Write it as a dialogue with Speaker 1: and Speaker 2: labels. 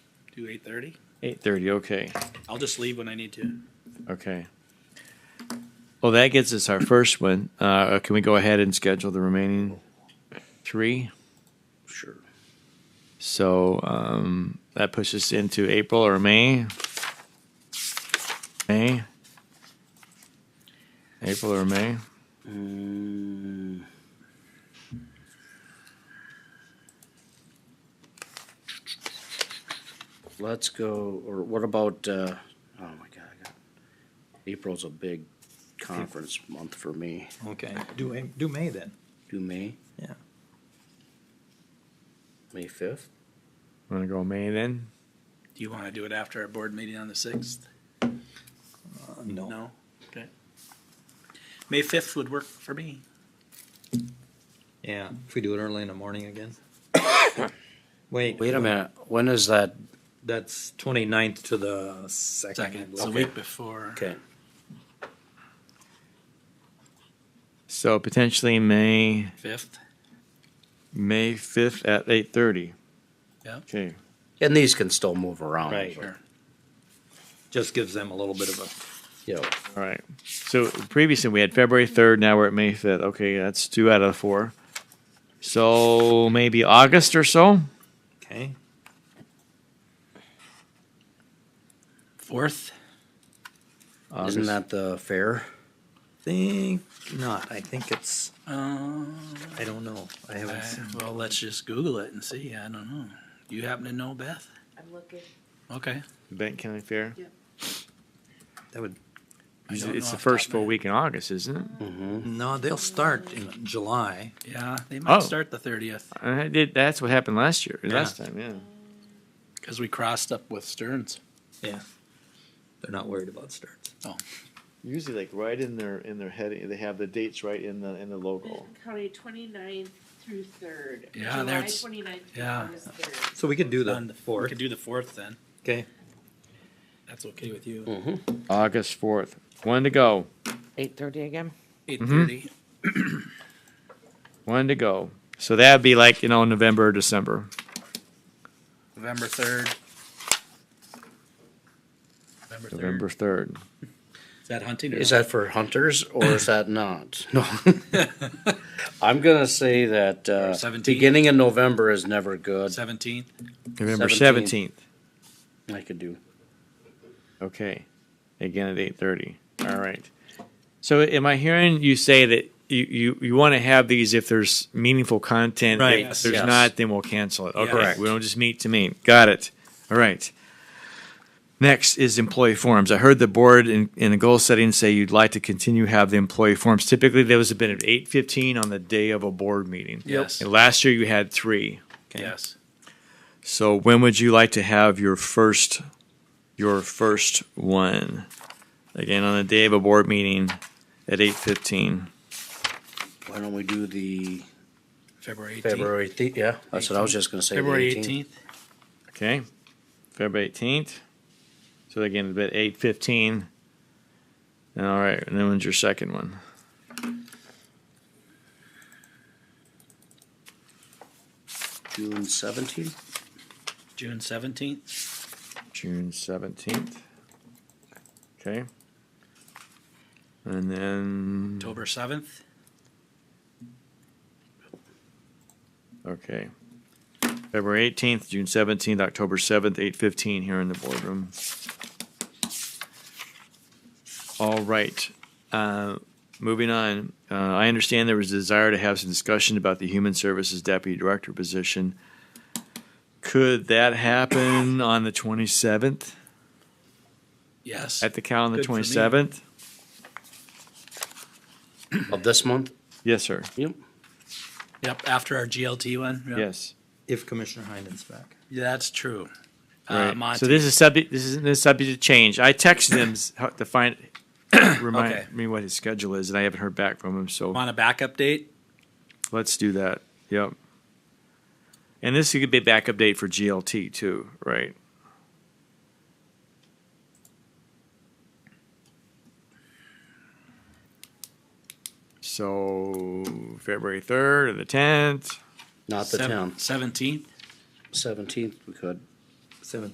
Speaker 1: do eight thirty?
Speaker 2: Eight thirty, okay,
Speaker 1: I'll just leave when I need to.
Speaker 2: okay. Well, that gets us our first one. Uh, can we go ahead and schedule the remaining three?
Speaker 1: Sure.
Speaker 2: So um, that pushes us into April or May. May. April or May.
Speaker 1: Um,
Speaker 3: Let's go, or what about, uh, oh my God, I got, April's a big conference month for me.
Speaker 4: Okay, do, A- do May then.
Speaker 3: Do May?
Speaker 4: Yeah.
Speaker 3: May fifth?
Speaker 2: Want to go May then?
Speaker 1: do you want to do it after our board meeting on the sixth?
Speaker 4: Uh, No,
Speaker 1: No? Okay. May fifth would work for me.
Speaker 4: yeah, if we do it early in the morning again. Wait.
Speaker 3: Wait a minute, when is that?
Speaker 4: That's twenty-ninth to the second. I
Speaker 1: Second, it's
Speaker 4: believe.
Speaker 1: the week before.
Speaker 3: Okay.
Speaker 2: So potentially May
Speaker 1: Fifth?
Speaker 2: May fifth at eight thirty.
Speaker 1: Yeah.
Speaker 2: Okay.
Speaker 3: And these can still move around.
Speaker 4: Right.
Speaker 3: but-
Speaker 4: Just gives them a little bit of a,
Speaker 3: Yeah,
Speaker 2: All right. So previously we had February third. Now we're at May fifth. Okay, that's two out of four. So maybe August or so.
Speaker 4: okay,
Speaker 1: Fourth?
Speaker 3: isn't
Speaker 2: August.
Speaker 3: that the fair?
Speaker 4: think not, I think it's,
Speaker 1: Um,
Speaker 4: I don't know, I haven't
Speaker 1: I-
Speaker 4: seen.
Speaker 1: well, let's just Google it and see. I don't know. Do you happen to know, Beth?
Speaker 5: I'm looking.
Speaker 1: Okay.
Speaker 2: Benton County Fair.
Speaker 4: That would,
Speaker 1: I
Speaker 2: It's
Speaker 1: don't know
Speaker 2: it's
Speaker 1: off top
Speaker 2: the
Speaker 1: of
Speaker 2: first
Speaker 1: my
Speaker 2: full
Speaker 1: head.
Speaker 2: week in August, isn't it?
Speaker 3: Mm-hmm.
Speaker 4: no, they'll start in July,
Speaker 1: Yeah, they might
Speaker 2: Oh.
Speaker 1: start the thirtieth
Speaker 2: And I did, that's what happened last year.
Speaker 4: Yeah.
Speaker 2: Last time, yeah.
Speaker 1: because we crossed up with Stearns.
Speaker 4: they're not worried about starts.
Speaker 2: Usually, like right in their in their heading, they have the dates right in the in the logo.
Speaker 5: Benton County 29th through 3rd.
Speaker 1: Yeah,
Speaker 5: July
Speaker 1: there's-
Speaker 5: 29th through
Speaker 1: yeah.
Speaker 5: August 3rd.
Speaker 4: So we could do the
Speaker 1: We
Speaker 4: fourth,
Speaker 1: could do the fourth then.
Speaker 4: okay,
Speaker 1: That's okay with
Speaker 2: Mm-hmm.
Speaker 1: you.
Speaker 2: August fourth, one to go,
Speaker 6: Eight thirty again?
Speaker 1: Eight thirty.
Speaker 2: one to go. So that'd be like you know November, or December.
Speaker 1: November third. November
Speaker 2: November
Speaker 1: third.
Speaker 2: third.
Speaker 1: Is that hunting? Or
Speaker 3: Is
Speaker 1: not?
Speaker 3: that for hunters or is that not? No. I'm gonna say that, uh,
Speaker 1: 17th?
Speaker 3: beginning of November is never good.
Speaker 1: seventeenth?
Speaker 2: November
Speaker 3: 17th.
Speaker 2: seventeenth.
Speaker 3: I could do.
Speaker 2: Okay, again at eight thirty. All right. So am I hearing you say that you you, you want to have these if there's meaningful content?
Speaker 4: Right.
Speaker 2: If
Speaker 1: Yes.
Speaker 2: there's
Speaker 3: Yes.
Speaker 2: not, then we'll cancel it. Okay.
Speaker 1: Correct.
Speaker 2: We don't just meet to meet. Got it. All right. Next is employee forums. I heard the board in, in the goal setting say you'd like to continue have the employee forums. Typically, those have been at eight fifteen on the day of a board meeting.
Speaker 1: Yes.
Speaker 2: And last year you had three.
Speaker 1: Yes.
Speaker 2: So when would you like to have your first, your first one? Again, on the day of a board meeting at eight fifteen.
Speaker 3: Why don't we do the
Speaker 1: February eighteenth.
Speaker 3: February, thi- yeah, that's what I was just gonna say. the
Speaker 1: February
Speaker 3: 18th.
Speaker 1: eighteenth.
Speaker 2: Okay, February eighteenth. So again, it'd be at eight fifteen. And all right, and then when's your second one?
Speaker 3: June seventeenth?
Speaker 1: June seventeenth.
Speaker 2: June seventeenth. Okay. And then,
Speaker 1: October seventh.
Speaker 2: okay. February eighteenth, June seventeenth, October seventh, eight fifteen here in the boardroom. All right. Uh, Moving on, uh, I understand there was a desire to have some discussion about the Human Services Deputy Director position. Could that happen on the twenty-seventh,
Speaker 1: Yes.
Speaker 2: at the count on the
Speaker 1: Good for me.
Speaker 2: twenty-seventh?
Speaker 3: Of this month?
Speaker 2: Yes, sir.
Speaker 3: Yep.
Speaker 1: Yep. After our GLT one. Yep.
Speaker 2: Yes.
Speaker 4: if Commissioner Hyden's back.
Speaker 1: Yeah, that's true. Uh,
Speaker 2: Right.
Speaker 1: Monty.
Speaker 2: So this is subject. This is this is subject to change. I texted him s- how- to find remind
Speaker 1: Okay.
Speaker 2: me what his schedule is, and I haven't heard back from him. So
Speaker 1: want a backup date?
Speaker 2: let's do that. Yep. And this could be a backup date for GLT too, right? So February third or the tenth.
Speaker 3: Not the tenth,
Speaker 1: Seventeenth.
Speaker 3: seventeenth we could.
Speaker 4: Seventeenth